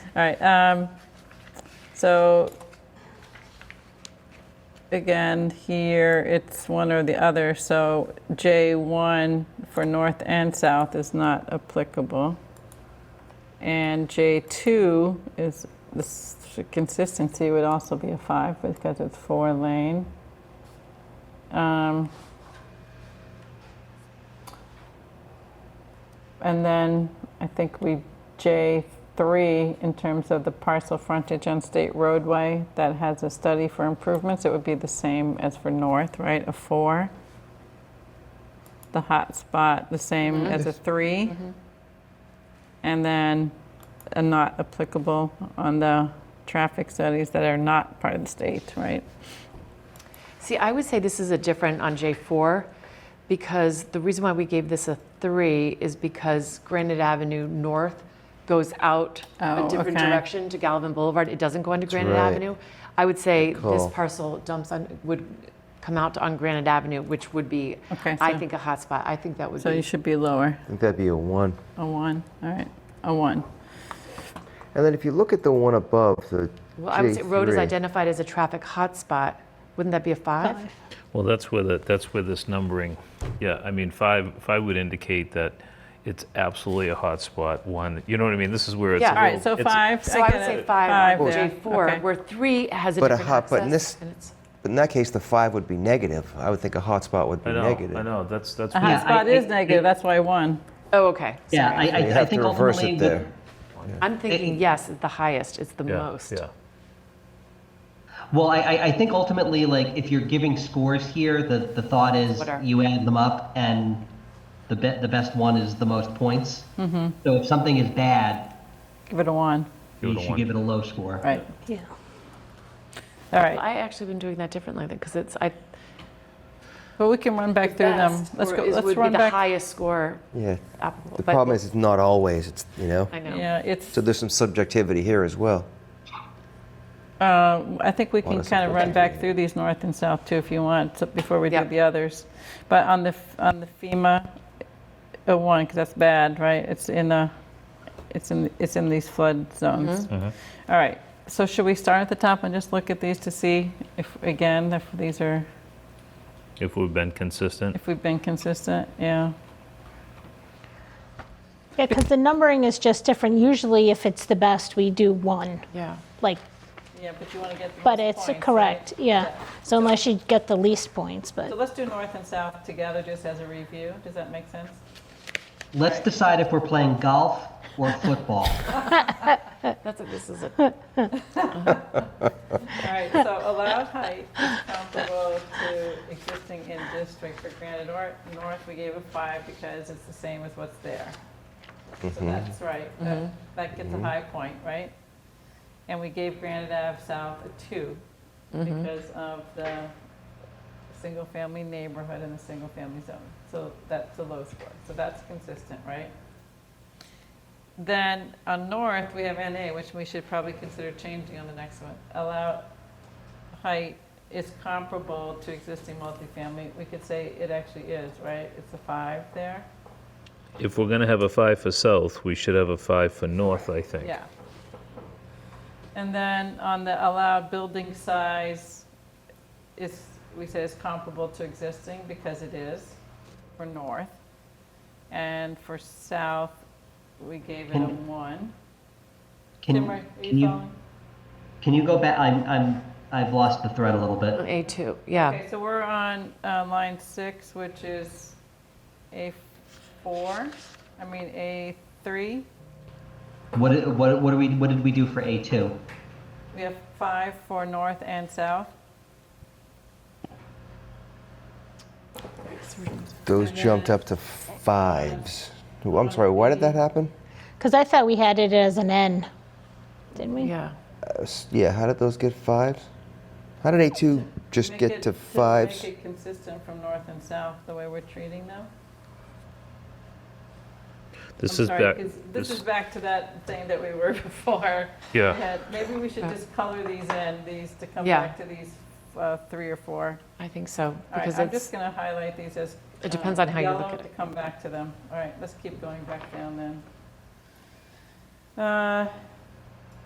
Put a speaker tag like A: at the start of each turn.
A: All right, um, so again, here, it's one or the other, so J1 for north and south is not applicable. And J2 is, this consistency would also be a five because it's four lane. Um, And then I think we, J3, in terms of the parcel frontage on state roadway that has a study for improvements, it would be the same as for north, right? A four. The hot spot, the same as a three. And then a not applicable on the traffic studies that are not part of the state, right?
B: See, I would say this is a different on J4 because the reason why we gave this a three is because Granite Avenue North goes out
A: Oh,
B: a different
A: okay.
B: direction to Galvin Boulevard. It doesn't go into Granite
C: right.
B: Avenue. I would say this
C: call.
B: parcel dumps on, would come out on Granite Avenue, which would be,
A: Okay,
B: I
A: so-
B: think, a hot spot. I think that would
A: So you
B: be.
A: should be lower,
C: I think that'd be a one.
A: a one, all right, a one.
C: And then if you look at the one above, the
B: Well, I would say road is
C: J3,
B: identified as a traffic hot spot. Wouldn't that be a five?
D: Well, that's where the, that's where this numbering, yeah, I mean, five, five would indicate that it's absolutely a hotspot, one, you know what I mean? This is where it's a
B: Yeah.
A: All right,
D: little-
A: so
D: it's-
A: five.
B: So I would
A: get
B: say
A: it.
B: five on
A: there, okay.
B: J4, where three has a
C: But a
B: different
C: hot- but in
B: access,
C: this-
B: and it's-
C: But in that case, the five would be negative. I would think a hotspot would be
D: I
C: negative.
D: know, I know, that's, that's.
A: A
D: where-
A: hot spot
E: I-
A: is
E: I-
A: negative, that's why one.
B: Oh, okay.
E: Yeah,
B: Sorry.
E: I, I,
C: You
E: I
C: have
E: think
C: to reverse
E: ultimately
C: it
E: the-
C: there.
B: I'm thinking, yes, it's the highest, it's the
D: yeah,
B: most.
D: Yeah.
E: Well, I, I, I think ultimately, like, if you're giving scores here, the, the thought is
B: What are-
E: you add them up and the, be- the best one is the most points.
A: Mm-hmm.
E: So if something is bad,
A: Give it a one,
D: Give it
E: you
D: a
E: should
D: one.
E: give it a low score.
A: right?
F: Yeah.
A: All right,
B: I actually been doing that differently because it's, I.
A: well, we can run back through them.
B: best
A: Let's
B: score
A: go,
B: is-
A: let's
B: Would be
A: run
B: the
A: back.
B: highest score
C: Yeah.
B: applicable.
C: The
B: but-
C: problem is, it's not always. It's you know.
B: I know.
A: Yeah, it's,
C: So there's some subjectivity here as well.
A: uh, I think we can
C: that's
A: kind of run
C: important.
A: back through these north and south too, if you want, so- before we do
B: Yep.
A: the others. But on the, f- on the FEMA, a one, because that's bad, right? It's in the, it's in, it's in these flood zones. All right, so should we start at the top and just look at these to see if, again, if these are,
D: If we've been consistent,
A: if we've been consistent? Yeah.
F: Yeah, because the numbering is just different. Usually, if it's the best, we do one,
B: Yeah.
F: like,
A: Yeah, but you want to get the
F: but
A: most
F: it's
A: points, right?
F: correct, yeah. So unless you get the least points,
A: So
F: but,
A: let's do north and south together just as a review. Does that make sense?
E: Let's decide if we're playing golf or football.
B: That's, a- this is a,
A: All right, so allowed height is comparable to existing in district for granted or north, we gave a five because it's the same as what's there. So that's right, that, that gets a high point, right? And we gave Granite Ave South a two because of the single-family neighborhood and the single-family zone. So that's a low score, so that's consistent, right? Then on north, we have NA, which we should probably consider changing on the next one. Allow height is comparable to existing multifamily. We could say it actually is, right? It's a five there?
D: if we're gonna have a five for south, we should have a five for north, I think.
A: Yeah. And then on the allowed building size, is, we say it's comparable to existing because it is for north. And for south, we gave it a one. Tim, are
E: Can,
A: you
E: can you,
A: following?
E: can you go back? I'm, I'm, I've lost the thread a little bit.
B: A2, yeah.
A: Okay, so we're on uh, line six, which is A4, I mean, A3.
E: What, i- what, what do we, what did we do for A2?
A: We have five for north and south.
C: Those jumped up to fives. Ooh, I'm sorry. Why did that happen?
F: because I thought we had it as an N, didn't we?
B: Yeah.
C: Uh, s- yeah. How did those get fives? How did A2 just
A: Make
C: get
A: it-
C: to
A: make
C: fives?
A: it consistent from north and south, the way we're treating them.
D: This
A: I'm
D: is
A: sorry,
D: back,
A: 'cause This
D: this-
A: is back to that thing that we were before.
D: Yeah.
A: Had- Maybe we should
B: Yeah.
A: just color these in, these, to come
B: Yeah.
A: back to these uh, three or four.
B: I think so.
A: All right,
B: Because
A: I'm just
B: it's,
A: going to highlight these as. uh,
B: It depends on how you look
A: yellow
B: at
A: to
B: it.
A: come back to them. All right, let's keep going back down then. Uh,